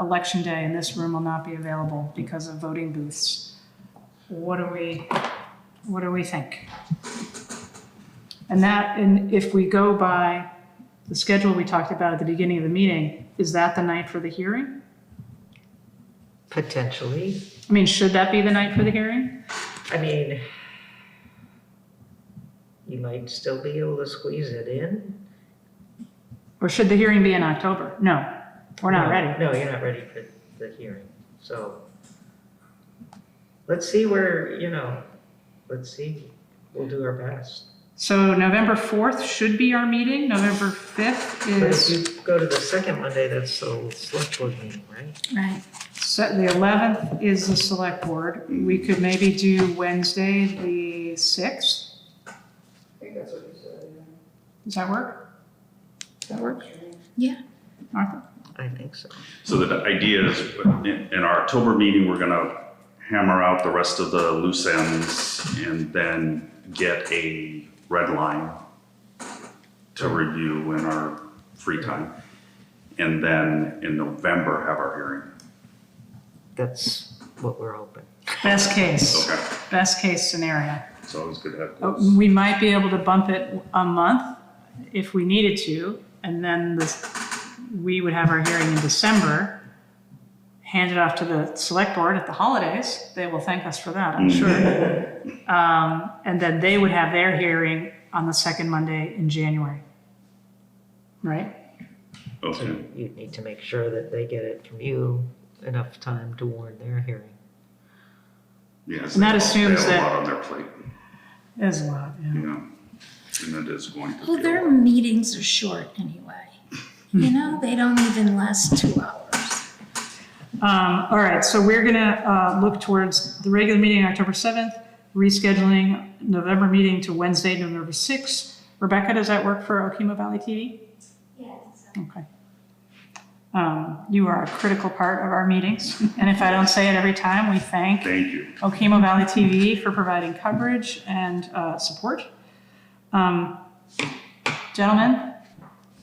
election day and this room will not be available because of voting booths. What do we, what do we think? And that, and if we go by the schedule we talked about at the beginning of the meeting, is that the night for the hearing? Potentially. I mean, should that be the night for the hearing? I mean, you might still be able to squeeze it in. Or should the hearing be in October? No, we're not No, ready. No, you're not ready for the hearing, so. Let's see where, you know, let's see, we'll do our best. So November 4th should be our meeting, November 5th But if is, you go to the second Monday, that's the select board meeting, right? Right. so the 11th is the select board. We could maybe do Wednesday, the 6th. I think that's what you said. Does that work? Does that work, Yeah. Martha? I think so. So the idea is, in in our October meeting, we're gonna hammer out the rest of the loose ends and then get a red line to review in our free time. And then in November, have our hearing. That's what we're hoping. Best case, Okay, best case scenario. it's always good to have Uh, those. We might be able to bump it a month if we needed to, and then this, we would have our hearing in December, hand it off to the select board at the holidays. They will thank us for that, I'm sure. Um, and then they would have their hearing on the second Monday in January. Right? Okay, You'd need to make sure that they get it from you enough time to warn their hearing. yes. And that they- assumes They have that- a lot on their plate, There's a lot, yeah. you know, and it is going to be. Well, a their lot. meetings are short anyway. You know, they don't even last two hours. Um, all right, so we're gonna, uh, look towards the regular meeting October seventh, rescheduling November meeting to Wednesday, November sixth. Rebecca, does that work for Okemo Valley TV? Yes. Okay. Um, you are a critical part of our meetings, and if I don't say it every time, we thank Thank you. Okemo Valley TV for providing coverage and uh, support. Um, Gentlemen,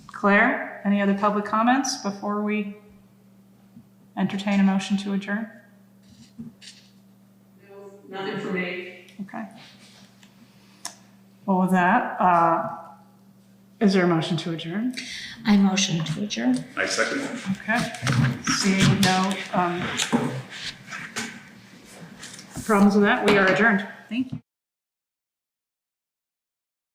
Claire, any other public comments before we entertain a motion to adjourn? Nothing for me. Okay. Well, with that, uh, is there a motion to adjourn? I motion to adjourn. I second it. Okay. Seeing no um, problems with that, we are adjourned. Thank you.